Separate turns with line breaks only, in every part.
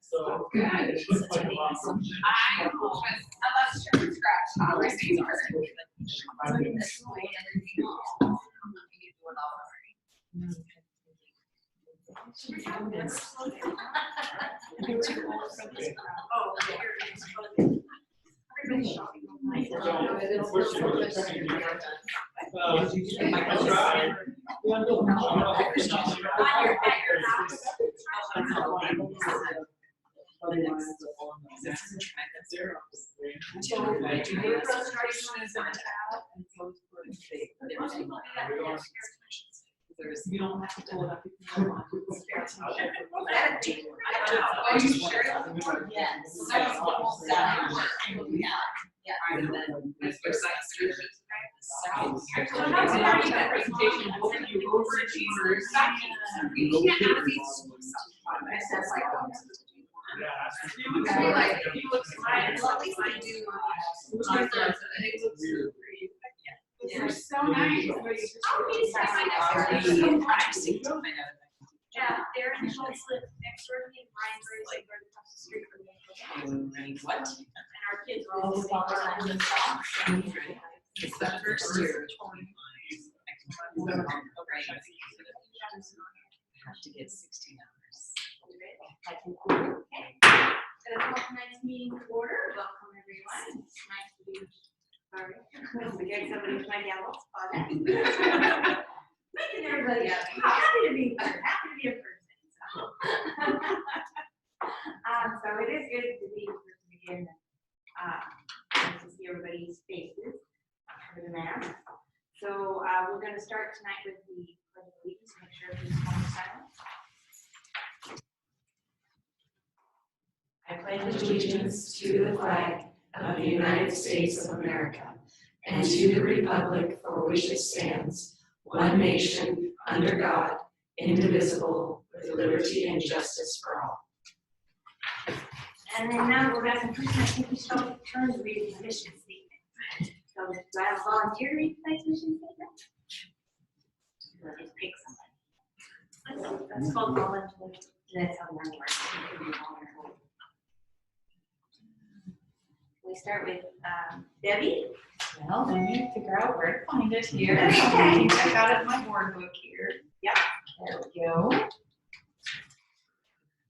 so.
God, it's such a big assumption. I know, but unless you're from scratch, all these things are. So in this way, everything else, I'm not gonna do it all already. Should we have this? Oh, yeah, here it is. Everybody's shopping online.
So, we're sure we're checking here. Uh,
Michael's-
Right.
On your- at your house. Frustration is not out.
You don't have to pull it up.
Are you sure? Yes. I was almost done. Yeah. Yeah.
Well, that's already that presentation, what were you overachievers?
You can't have these. I said like.
I feel like if you look smart,
I
it's
love
like,
these
I
I
do.
do.
It looks
Weird.
great.
They're
so
nice,
where you just-
I'll be surprised if they're so interesting. Yeah, they're in Charlottesville, next door to me, Ryan's like right across the street from me.
What?
And our kids are all about the socks.
It's that first year. Have to get sixteen hours.
So welcome tonight's meeting to order. Welcome everyone. It's nice to be. Sorry. We got somebody with my yellow spot. Making everybody up. Happy to be here. Happy to be a person. so. Um, so it is good to be here to begin. Uh, nice to see everybody's faces for the mask. So, uh, we're gonna start tonight with the, pledge of allegiance. make sure everyone's on silent.
I pledge allegiance to the flag of the United States of America and to the republic for which it stands, one nation, under God, indivisible, with liberty and justice for all.
And then now we're back in person, I think we shall turn to reading the mission statement. So do I have a volunteer to read tonight's mission statement? Or just pick somebody. That's- That's called volunteer. That's how one works. We start with um, Debbie.
Well, let me figure out where to find it here.
Okay.
I got it in my board book here.
Yep.
There we go.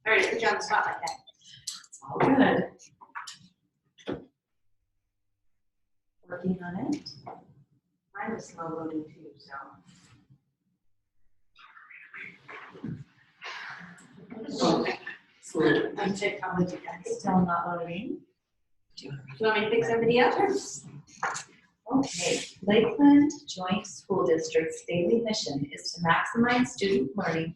Sorry to put you on the spot like that.
It's all good. Working on it.
Mine was slow loading too, so. I'm technology guys.
Still not loading.
Do you want me to pick somebody else?
Okay, Lakeland Joint School District's daily mission is to maximize student learning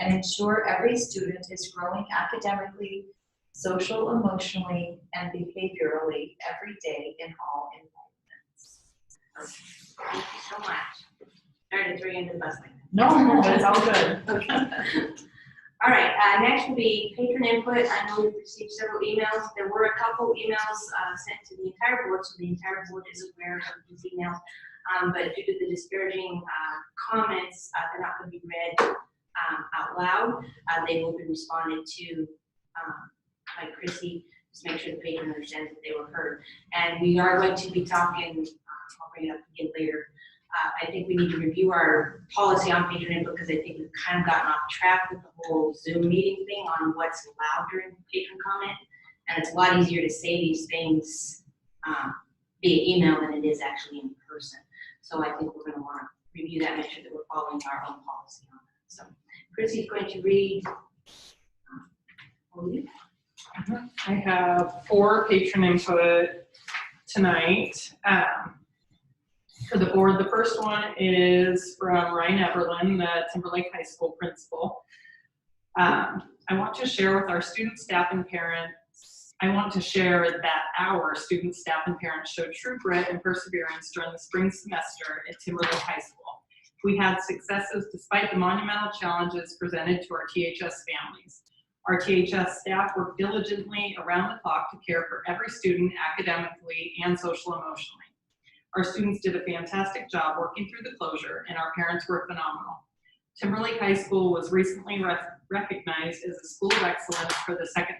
and ensure every student is growing academically, social, emotionally, and behaviorally every day in all environments.
Thank you so much. Sorry to throw you under the bus like that.
No, no, but it's all good.
All right, uh, next will be patron input. I know we've received several emails. There were a couple emails, uh, sent to the entire board, so the entire board is aware of these emails. Um, but due to the disparaging, uh, comments, uh, they're not gonna be read, um, out loud. Uh, they will be responded to, um, by Chrissy. Just make sure the patron understands that they were heard. And we are going to be talking, uh, I'll bring it up again later, uh, I think we need to review our policy on patron input because I think we've kind of gotten off track with the whole Zoom meeting thing on what's allowed during patron comment. And it's a lot easier to say these things um, via email than it is actually in person. So I think we're going to want to review that, make sure that we're following our own policy on that. So Chrissy's going to read. um, we'll leave.
I have four patron input tonight. um, For the board, the first one is from Ryan Everlin, the Timberlake High School principal. Um, I want to share with our students, staff, and parents, I want to share that our students, staff, and parents showed true grit and perseverance during the spring semester at Timberlake High School. We had successes despite the monumental challenges presented to our THS families. Our THS staff work diligently around the clock to care for every student academically and social emotionally. Our students did a fantastic job working through the closure, and our parents were phenomenal. Timberlake High School was recently rec- recognized as a school of excellence for the second